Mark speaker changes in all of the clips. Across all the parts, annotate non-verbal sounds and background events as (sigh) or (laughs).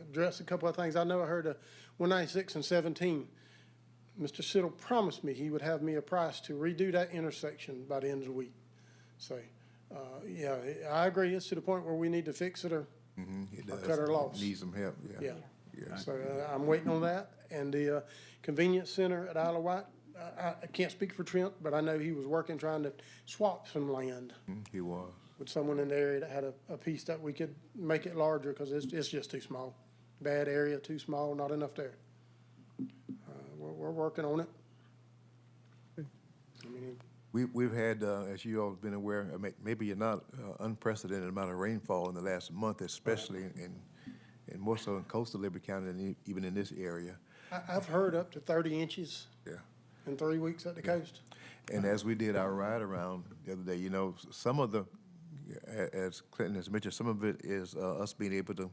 Speaker 1: address a couple of things. I know I heard uh, 196 and 17. Mr. Siddle promised me he would have me a price to redo that intersection by the end of the week. So, uh, yeah, I agree, it's to the point where we need to fix it or,
Speaker 2: It
Speaker 1: or
Speaker 2: Mm-hmm, does.
Speaker 1: cut our loss.
Speaker 2: Needs some help, yeah.
Speaker 1: Yeah.
Speaker 2: Yeah.
Speaker 1: So uh, I'm waiting on that. And the uh, convenience center at Isle of Wight, I- I, I can't speak for Trent, but I know he was working, trying to swap some land
Speaker 2: Mm, He was.
Speaker 1: with someone in the area that had a, a piece that we could make it larger, because it's, it's just too small. Bad area, too small, not enough there. Uh, We're, we're working on it. I mean,
Speaker 2: We, we've had, uh, as you all have been aware, I may- maybe you're not, uh, unprecedented amount of rainfall in the last month, especially in, and more so in coastal Liberty County than e- even in this area.
Speaker 1: I, I've heard up to thirty inches
Speaker 2: Yeah.
Speaker 1: in three weeks at the coast.
Speaker 2: And as we did our ride around the other day, you know, s- some of the, a- as Clinton has mentioned, some of it is uh, us being able to,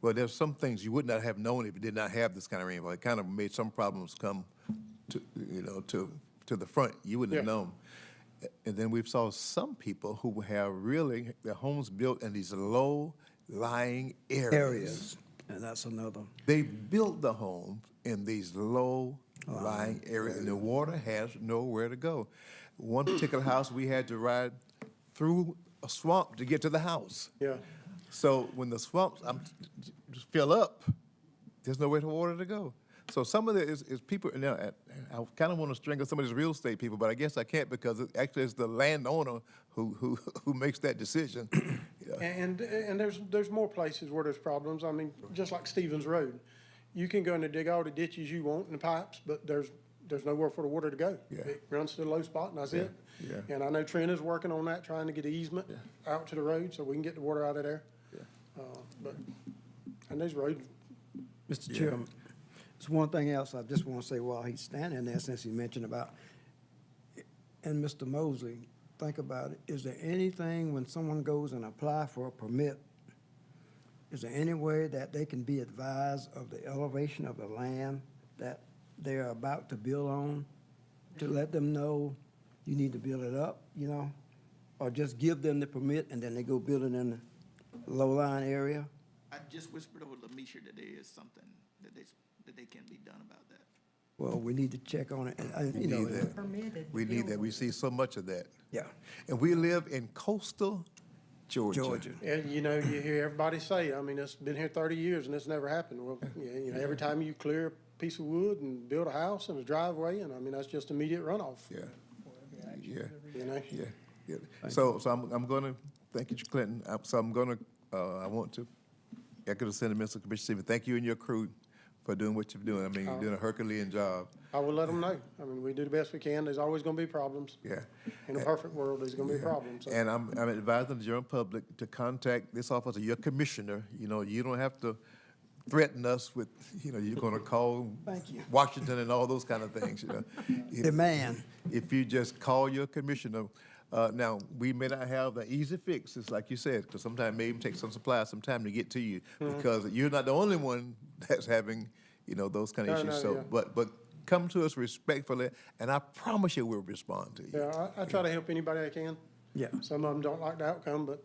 Speaker 2: well, there's some things you would not have known if you did not have this kind of rainfall. It kind of made some problems come to, you know, to, to the front. You wouldn't have
Speaker 1: Yeah.
Speaker 2: known. A- And then we've saw some people who have really their homes built in these low-lying
Speaker 3: areas. And that's another.
Speaker 2: they built the homes in these low lying areas, and the water has nowhere to go. One particular house, we had to ride through a swamp to get to the house.
Speaker 1: Yeah.
Speaker 2: So when the swamps um, just fill up, there's nowhere for water to go. So some of the is, is people. Now I, I kind of want to strangle some of these real estate people, but I guess I can't because it actually it's the landowner who who who makes that decision. Yeah.
Speaker 1: And, and there's, there's more places where there's problems. I mean, just like Stevens Road. You can go in and dig all the ditches you want and the pipes, but there's, there's nowhere for the water to go.
Speaker 2: Yeah.
Speaker 1: It runs to the low spot and that's it.
Speaker 2: yeah.
Speaker 1: And I know Trent is working on that, trying to get easement out to the road so we can get the water out of there. Uh, but, and those roads,
Speaker 3: Mr. Chairman, there's one thing else I just want to say while he's standing there, since he mentioned about, and Mr. Mosley, think about it, is there anything when someone goes and apply for a permit, is there any way that they can be advised of the elevation of the land that they are about to build on? To let them know you need to build it up, you know? Or just give them the permit and then they go build it in the low-lying area?
Speaker 4: I just whispered over to Lemisha that there is something that they, that they can be done about that.
Speaker 3: Well, we need to check on it, and- and, you know, uh,
Speaker 2: need that.
Speaker 5: permitted.
Speaker 2: We need that. We see so much of that.
Speaker 3: yeah,
Speaker 2: And we live in coastal Georgia.
Speaker 3: Georgia.
Speaker 1: and you know, you hear everybody say, I mean, it's been here thirty years and it's never happened. Well, yeah, you know, every time you clear a piece of wood and build a house and a driveway, and I mean, that's just immediate runoff,
Speaker 2: Yeah. Yeah,
Speaker 1: you know?
Speaker 2: yeah, yeah. So, so I'm, I'm gonna, thank you, Clinton. I'm- So I'm gonna, uh, I want to echo the sentiments of Commissioner Stevens. Thank you and your crew for doing what you're doing. I mean, you're doing a Herculean job.
Speaker 1: I will let them know. I mean, we do the best we can. There's always gonna be problems.
Speaker 2: Yeah.
Speaker 1: In a perfect world, there's gonna be problems. So,
Speaker 2: And I'm, I'm advising the general public to contact this office or your commissioner. You know, you don't have to threaten us with, you know, you're gonna call
Speaker 3: Thank you.
Speaker 2: Washington and all those kind of things, you know. If-
Speaker 3: Demand.
Speaker 2: If you just call your commissioner, uh, now, we may not have the easy fixes, like you said, because sometimes it may even take some supplies some time to get to you,
Speaker 1: Mm-hmm.
Speaker 2: because you're not the only one that's having, you know, those kind of
Speaker 1: No,
Speaker 2: issues.
Speaker 1: no, yeah.
Speaker 2: So, but, but come to us respectfully, and I promise you we'll respond to you.
Speaker 1: Yeah, I, I try to help anybody I can.
Speaker 3: Yeah.
Speaker 1: Some of them don't like the outcome, but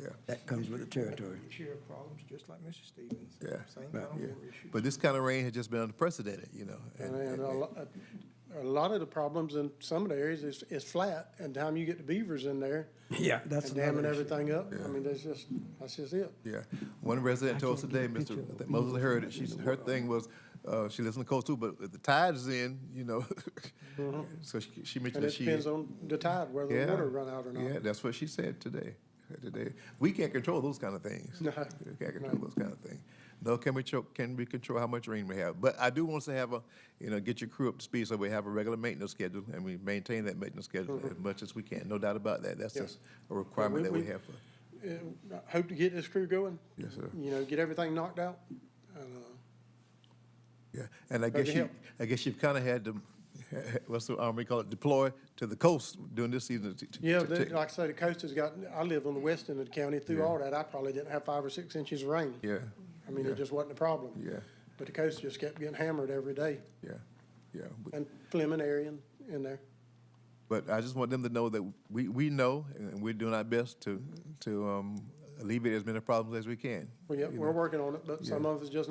Speaker 2: Yeah.
Speaker 3: That comes with the territory.
Speaker 6: share problems, just like Mr. Stevens.
Speaker 2: Yeah.
Speaker 6: Same
Speaker 2: yeah.
Speaker 6: kind of water issue.
Speaker 2: But this kind of rain has just been unprecedented, you know.
Speaker 1: and, and a lot, a lot of the problems in some of the areas is, is flat. And the time you get the beavers in there
Speaker 3: Yeah. That's
Speaker 1: and damming
Speaker 3: another issue.
Speaker 1: everything up, I mean, that's just, that's just it.
Speaker 2: yeah. One resident told us today,
Speaker 3: picture
Speaker 2: Mr.
Speaker 3: of
Speaker 2: I
Speaker 3: the
Speaker 2: think Moses heard it. She, her thing was, uh, she lives in the coast too, but if the tide's in, you know. (laughs) so she, she
Speaker 1: And
Speaker 2: mentioned that
Speaker 1: it
Speaker 2: she.
Speaker 1: depends on the tide, whether the water run out or
Speaker 2: Yeah,
Speaker 1: not.
Speaker 2: that's what she said today. Today, we can't control those kind of
Speaker 1: (laughs)
Speaker 2: things.
Speaker 1: No.
Speaker 2: We can't control those kind of things. No, can we cho- can we control how much rain we have? But I do want us to have a, you know, get your crew up to speed so we have a regular maintenance schedule and we maintain that maintenance schedule as much as we can. No doubt about that. That's
Speaker 1: Yeah.
Speaker 2: just a requirement that we
Speaker 1: we-
Speaker 2: have. For,
Speaker 1: Uh, I Hope to get this crew going.
Speaker 2: Yes, sir.
Speaker 1: You know, get everything knocked out. And, uh,
Speaker 2: yeah, and I
Speaker 1: Glad
Speaker 2: guess
Speaker 1: to
Speaker 2: you,
Speaker 1: help.
Speaker 2: I guess you've kind of had to, (laughs) what's the army call it? Deploy to the coast during this season. To, to,
Speaker 1: Yeah,
Speaker 2: to,
Speaker 1: the-
Speaker 2: take-
Speaker 1: like I say, the coast has got, I live on the west end of the county, through all that, I probably didn't have five or six inches of rain.
Speaker 2: yeah,
Speaker 1: I mean, it just wasn't a problem.
Speaker 2: Yeah.
Speaker 1: But the coast just kept getting hammered every day,
Speaker 2: yeah, yeah. We-
Speaker 1: and Fleming area in, in there.
Speaker 2: But I just want them to know that we, we know and we're doing our best to, to um, alleviate as many problems as we can.
Speaker 1: We,
Speaker 2: you
Speaker 1: we're
Speaker 2: know.
Speaker 1: working on it, but some of it's just